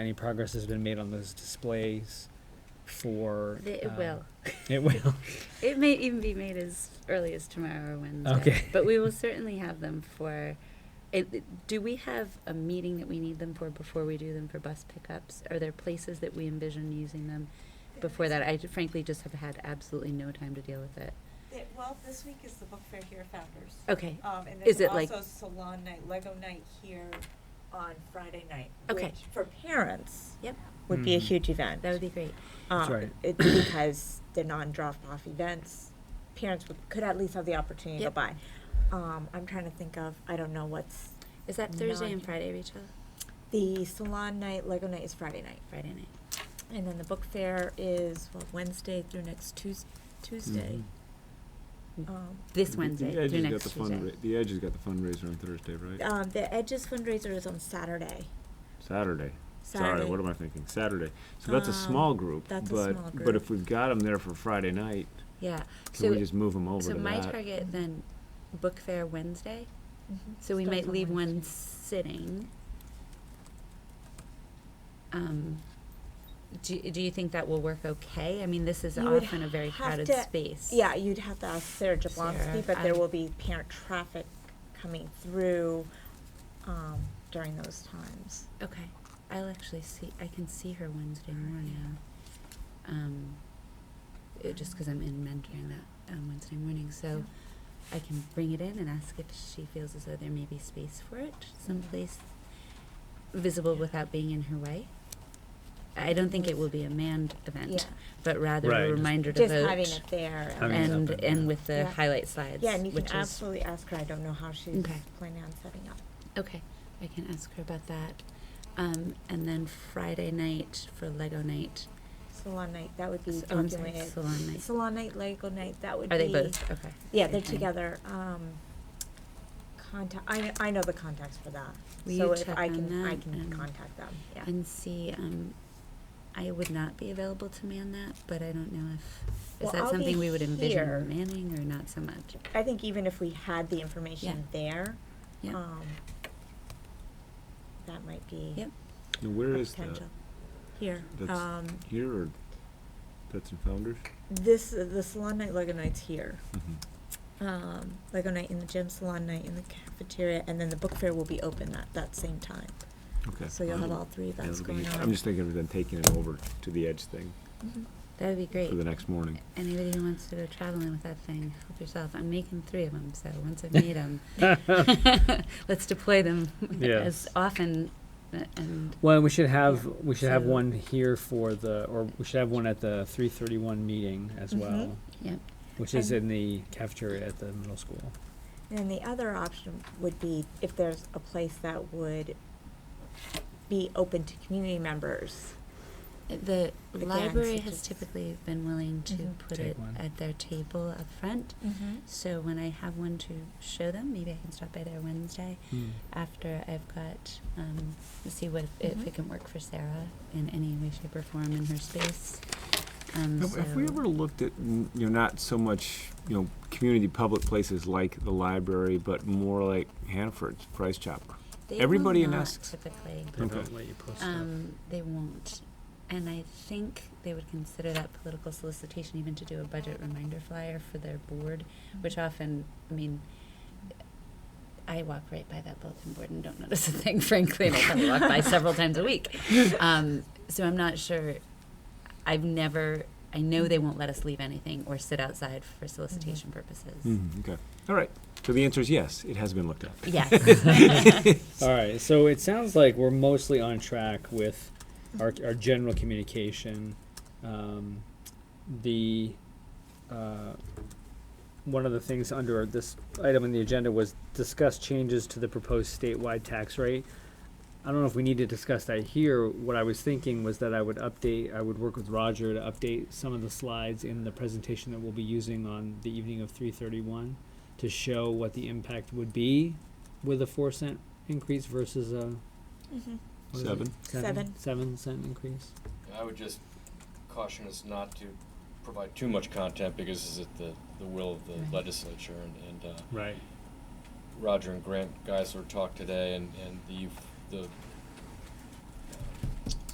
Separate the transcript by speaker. Speaker 1: Any progress has been made on those displays for?
Speaker 2: It
Speaker 1: um,
Speaker 2: will.
Speaker 1: It will.
Speaker 2: It may even be made as early as tomorrow or Wednesday.
Speaker 1: Okay.
Speaker 2: But we will certainly have them for, it, it- do we have a meeting that we need them for before we do them for bus pickups? Are there places that we envision using them before that? I frankly just have had absolutely no time to deal with it.
Speaker 3: Yeah, Well, this week is the Book Fair here at Founders.
Speaker 2: Okay,
Speaker 3: Um, and
Speaker 2: Oh. Is
Speaker 3: there's
Speaker 2: it like-
Speaker 3: also salon night, Lego night here on Friday night.
Speaker 2: Okay.
Speaker 3: which For parents.
Speaker 2: Yep.
Speaker 3: Would be a
Speaker 1: Mhm.
Speaker 3: huge event.
Speaker 2: that would be great.
Speaker 1: That's
Speaker 3: Um,
Speaker 1: right.
Speaker 3: it- Because the non-drop-off events, parents would, could at least have the opportunity to
Speaker 2: Yep.
Speaker 3: buy. Um, I'm trying to think of, I don't know what's,
Speaker 2: Is that Thursday and
Speaker 3: Nine.
Speaker 2: Friday, Rachel?
Speaker 3: the salon night, Lego night is Friday night.
Speaker 2: Friday night.
Speaker 3: And then the Book Fair is what, Wednesday through next Tues- Tuesday.
Speaker 1: Mm-hmm.
Speaker 3: Um,
Speaker 2: This
Speaker 4: The-
Speaker 2: Wednesday
Speaker 4: The Edge
Speaker 2: through
Speaker 4: has got
Speaker 2: next
Speaker 4: the
Speaker 2: Tuesday.
Speaker 4: fundra- The Edge has got the fundraiser on Thursday, right?
Speaker 3: um, the Edges fundraiser is on Saturday.
Speaker 4: Saturday.
Speaker 3: Saturday.
Speaker 4: Sorry, what am I thinking? Saturday. So that's a
Speaker 3: Um,
Speaker 4: small group,
Speaker 3: that's a
Speaker 4: but,
Speaker 3: small group.
Speaker 4: but if we've got them there for Friday night,
Speaker 2: Yeah,
Speaker 4: can we
Speaker 2: so,
Speaker 4: just move them over to
Speaker 2: so
Speaker 4: that?
Speaker 2: my target then, book fair Wednesday,
Speaker 3: Mhm.
Speaker 2: So we
Speaker 3: Starts
Speaker 2: might
Speaker 3: on
Speaker 2: leave one
Speaker 3: Wednesday.
Speaker 2: sitting. Um, do, do you think that will work okay? I mean, this is
Speaker 3: You would
Speaker 2: often a very
Speaker 3: have
Speaker 2: crowded
Speaker 3: to-
Speaker 2: space.
Speaker 3: Yeah, you'd have to ask Sarah
Speaker 2: Sarah,
Speaker 3: Jablonski, but there
Speaker 2: um,
Speaker 3: will be parent traffic coming through um, during those times.
Speaker 2: Okay, I'll actually see, I can see her Wednesday morning. Um, uh, just because I'm in mentoring that on Wednesday morning, so I can bring it in and ask if she feels as though there may be space for it someplace visible without being in her way. I don't think it will be a manned event.
Speaker 3: Yeah,
Speaker 2: but rather
Speaker 1: Right,
Speaker 2: a
Speaker 1: just-
Speaker 2: reminder to
Speaker 3: just having
Speaker 2: vote
Speaker 3: it there.
Speaker 1: Having it
Speaker 2: and
Speaker 1: happen,
Speaker 2: and
Speaker 1: yeah.
Speaker 2: with the
Speaker 3: Yeah.
Speaker 2: highlight slides.
Speaker 3: Yeah, and you can
Speaker 2: which is,
Speaker 3: absolutely ask her. I don't know how she's
Speaker 2: Okay.
Speaker 3: planning on setting up.
Speaker 2: okay, I can ask her about that. Um, and then Friday night for Lego night.
Speaker 3: Salon night, that would be
Speaker 2: s- oh, I'm sorry,
Speaker 3: documented.
Speaker 2: salon night.
Speaker 3: Salon night, Lego night, that would
Speaker 2: Are
Speaker 3: be.
Speaker 2: they both okay?
Speaker 3: Yeah, they're
Speaker 2: Okay.
Speaker 3: together. Um, contact. I, kn- I know the contacts for that.
Speaker 2: Will
Speaker 3: so
Speaker 2: you
Speaker 3: if
Speaker 2: check
Speaker 3: I
Speaker 2: on
Speaker 3: can I
Speaker 2: that
Speaker 3: can
Speaker 2: and-
Speaker 3: contact them. Yeah.
Speaker 2: And see, um, I would not be available to man that, but I don't know if
Speaker 3: Well,
Speaker 2: is that
Speaker 3: I'll be
Speaker 2: something we would envision
Speaker 3: here.
Speaker 2: manning or not so much.
Speaker 3: I think even if we had the information there,
Speaker 2: Yeah.
Speaker 3: um, that might be
Speaker 2: Yep.
Speaker 4: Now,
Speaker 3: a
Speaker 4: where is that?
Speaker 3: potential. Here,
Speaker 4: That's-
Speaker 3: um,
Speaker 4: Here or, that's in Founders?
Speaker 3: this the salon night Lego night's here.
Speaker 4: Mhm.
Speaker 3: Um, Lego night in the gym, salon night in the cafeteria, and then the book fair will be open at that same time.
Speaker 4: Okay.
Speaker 3: So you'll have
Speaker 4: Um,
Speaker 3: all three
Speaker 4: yeah,
Speaker 3: events
Speaker 4: that'll be-
Speaker 3: going on.
Speaker 4: I'm just thinking of then taking it over to the Edge thing
Speaker 3: Mhm.
Speaker 2: That would be great.
Speaker 4: for the next morning.
Speaker 2: Anybody who wants to go traveling with that thing, help yourself. I'm making three of them, so once I've made them, let's deploy them
Speaker 1: Yes.
Speaker 2: as often a- and
Speaker 1: Well, and we should have, we should have
Speaker 2: So-
Speaker 1: one here for the, or we should have one at the three thirty-one meeting as
Speaker 3: Mhm.
Speaker 1: well.
Speaker 2: Mm-hmm. Yep.
Speaker 1: Which is
Speaker 3: And-
Speaker 1: in the cafeteria at the middle school.
Speaker 3: And then the other option would be if there's a place that would be open to community members.
Speaker 2: the
Speaker 3: Again,
Speaker 2: library
Speaker 3: such
Speaker 2: has
Speaker 3: as-
Speaker 2: typically been willing to
Speaker 3: Mhm.
Speaker 2: put
Speaker 1: Take
Speaker 2: it
Speaker 1: one.
Speaker 2: at their table up front.
Speaker 3: Mm-hmm.
Speaker 2: So when I have one to show them, maybe I can stop by there Wednesday
Speaker 1: Hmm.
Speaker 2: after I've got um, to see what if it
Speaker 3: Mhm.
Speaker 2: can work for Sarah in any way, shape, or form in her space. Um,
Speaker 4: Have have we
Speaker 2: so-
Speaker 4: ever looked at, n- you know, not so much, you know, community public places like the library, but more like Hanford's Price Chopper?
Speaker 2: They will
Speaker 4: Everybody in
Speaker 2: not
Speaker 4: us-
Speaker 2: typically.
Speaker 1: They
Speaker 4: Okay.
Speaker 1: don't let you post stuff.
Speaker 2: Um, they won't. And I think they would consider that political solicitation even to do a budget reminder flyer for their board, which often, I mean, I walk right by that bulletin board and don't notice a thing, frankly, and I probably walk by several times a week. Um, so I'm not sure. I've never, I know they won't let us leave anything or sit outside for solicitation purposes.
Speaker 4: Mhm, Okay, all right. So the answer is yes, it has been looked at.
Speaker 2: Yes.
Speaker 1: All right, so it sounds like we're mostly on track with our, our general communication. Um, the uh, one of the things under this item on the agenda was discuss changes to the proposed statewide tax rate. I don't know if we need to discuss that here. What I was thinking was that I would update, I would work with Roger to update some of the slides in the presentation that we'll be using on the evening of 331 to show what the impact would be with a four cent increase versus a
Speaker 3: Mm-hmm.
Speaker 1: what is it?
Speaker 4: Seven.
Speaker 3: Seven.
Speaker 1: seven cent increase.
Speaker 5: And I would just caution us not to provide too much content because it's at the, the will of
Speaker 2: Right.
Speaker 5: the legislature and, and uh,
Speaker 1: Right.
Speaker 5: Roger and Grant Geisler talked today and, and the, the